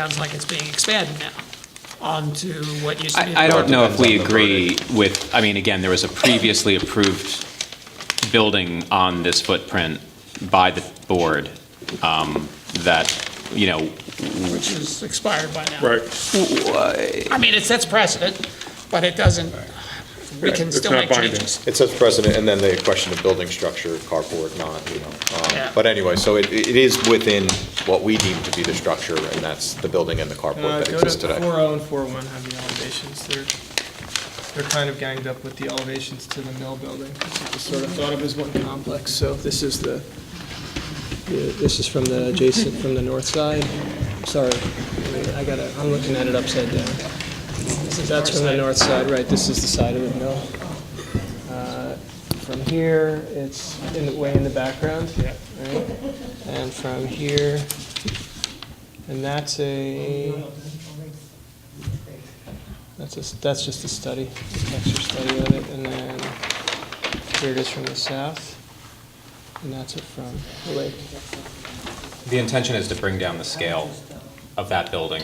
Sounds like it's being expanded now onto what used to be. I, I don't know if we Depends on the agree with, I mean, again, there was a previously approved building on this footprint by the board um, that, you know, Which is expired by now. Right, I mean, it sets precedent, but it doesn't, we can It's still not make binding. changes. It says precedent, and then the question of building structure, carport, not, you know. Yeah. um, But anyway, so it, it is within what we deem to be the structure, and that's the building and the Uh, carport that Go exists to today. 40 and 41 have the elevations. They're, they're kind of ganged up with the elevations to the mill building. It's just sort of thought of as one complex, so this is the, the- this is from the adjacent, from the north side. Sorry, wait, I gotta, I'm looking at it upside down. That's from the north side, right, this is the side of the mill. Uh, From here, it's in the, way in the background. Yeah. And from here, and that's a, that's a, that's just a study, an extra study of it, and then here it is from the south, and that's it from the lake. the intention is to bring down the scale of that building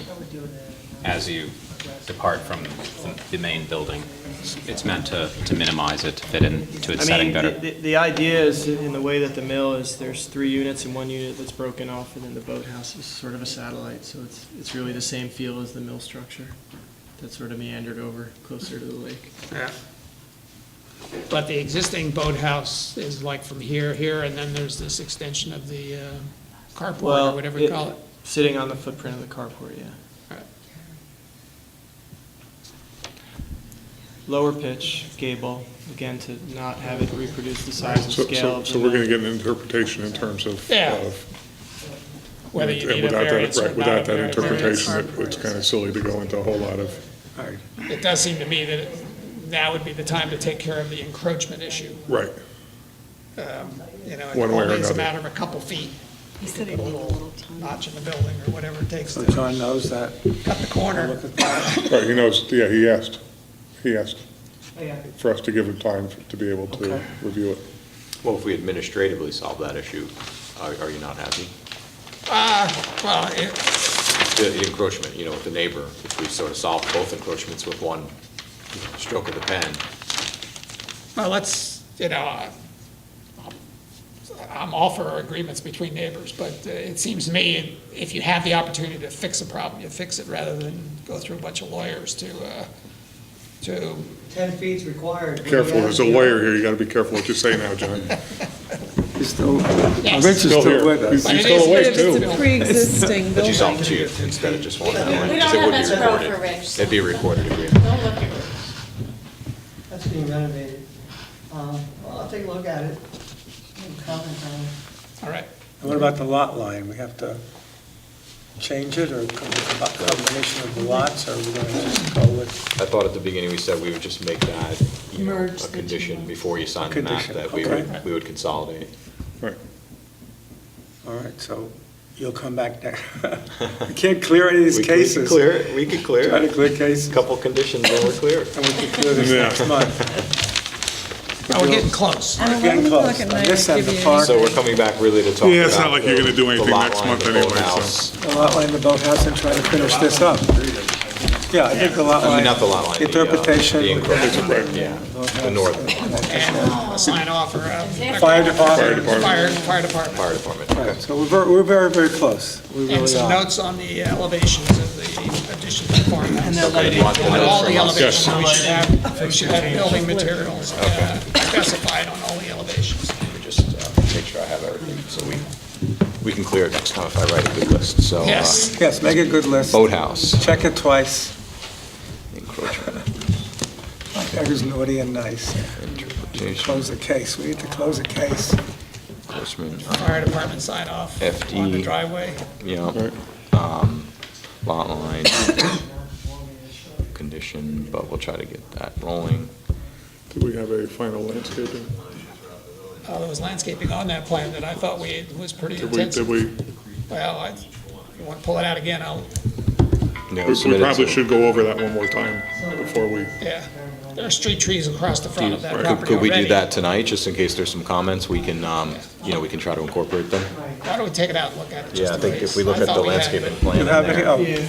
as you depart from the- the main building. It's meant to, to minimize it, to fit into its setting I better. mean, the- the, the idea is, in the way that the mill is, there's three units and one unit that's broken off, and then the boathouse is sort of a satellite, so it's, it's really the same feel as the mill structure that's sort of meandered over closer to the lake. Yeah. But the existing boathouse is like from here, here, and then there's this extension of the uh, carport or Well, whatever you call it. Sitting on the footprint of the carport, yeah. Right. Lower pitch, gable, again, to not have it reproduce the size and so, scale so, of so the we're gonna mill. get an interpretation in terms of. Yeah. of- Whether you and need a without that- variance or right, Without not a that variance. interpretation, it- it's kinda silly to go into a whole lot of, It does seem to me that it- now would be the time to take care of the encroachment issue. right, Um, You know, it One way or only is a another. matter of a couple feet, He said he'd leave a little time. notch in the building or whatever it takes to John knows that. cut the corner. right, he knows, yeah, he asked, he asked Oh, yeah. for us to give him time to be able to Okay. review it. Well, if we administratively solve that issue, are, are you not happy? Well, it, The the encroachment, you know, with the neighbor, if we sort of solve both encroachments with one you know, stroke of the pen, Well, let's, you know, uh, I'm all for agreements between neighbors, but uh, it seems to me, if you have the opportunity to fix a problem, you fix it rather than go through a bunch of lawyers to, uh, to, 10 feet's required. Careful, there's a lawyer here, you gotta be careful what you say now, John. He's still, Yes. Rich is Still still here, with us. he's But he's it still is- awake but it's too. a- pre-existing but you building. solve two instead of just one. We We don't have much room for Rich. It'd be recorded agreement. Don't look at it. That's being renovated. Um, Well, I'll take a look at it, and comment on it. all right. And What about the lot line? We have to change it, or come with a combination of the lots, or are we going to just go with? I thought at the beginning, we said we would just make that, you know, Merge a the two condition lots. before you sign the map, Condition, that we okay. would, we would consolidate. Right. All right, so you'll come back next. We can't clear any of We- these cases. We could clear it, we could clear Try to it. clear cases, A Couple conditions, then we're clear. and we can clear this next month. Oh, we're getting close. We're Getting close. On this end, the park, So we're coming back really to talk about. Yeah, it's not like you're gonna do the- the anything lot next line, month the anyway, so- boathouse. the lot line, the boathouse, and try to finish this up. Yeah, I think the lot I line. mean, not the lot line. the, uh, Interpretation. The Right. encroachment, yeah, the northern And I'll sign off for, uh, Fire Fire department. department. fire, fire department. fire department. Okay. Right, So we're very, we're very, very close. We And really some are. notes on the uh, elevations of the addition to the farmhouse. Okay, do you want the On notes all the from us? elevations, we should have, we should have building materials uh, specified on all the elevations. Let me Just uh, make sure I have everything, so we, we can clear it next time if I write a good list, so. uh, Yes. Yes, make a good list. Boathouse, Check it twice. encroachment, That was naughty and nice. interpretation, Close the case. We need to close the case. encroachment, fire department sign off FD. on the driveway. yeah, um, lot line, condition, but we'll try to get that rolling. Do we have a final landscaping? Uh, There was landscaping on that plan that I thought we, was pretty Did we, intense. did we, Well, I, you want to pull it out again, I'll, No, we- we submitted probably to- should go over that one more time before we. yeah. There are street trees across the front of that Could property could we do already. that tonight, just in case there's some comments, we can, um, you know, we can try to incorporate them? Why don't we take it out and look at it? Yeah, I just in think if case? we look I at thought the we had, landscaping but- plan You in have there- any, oh, Yeah.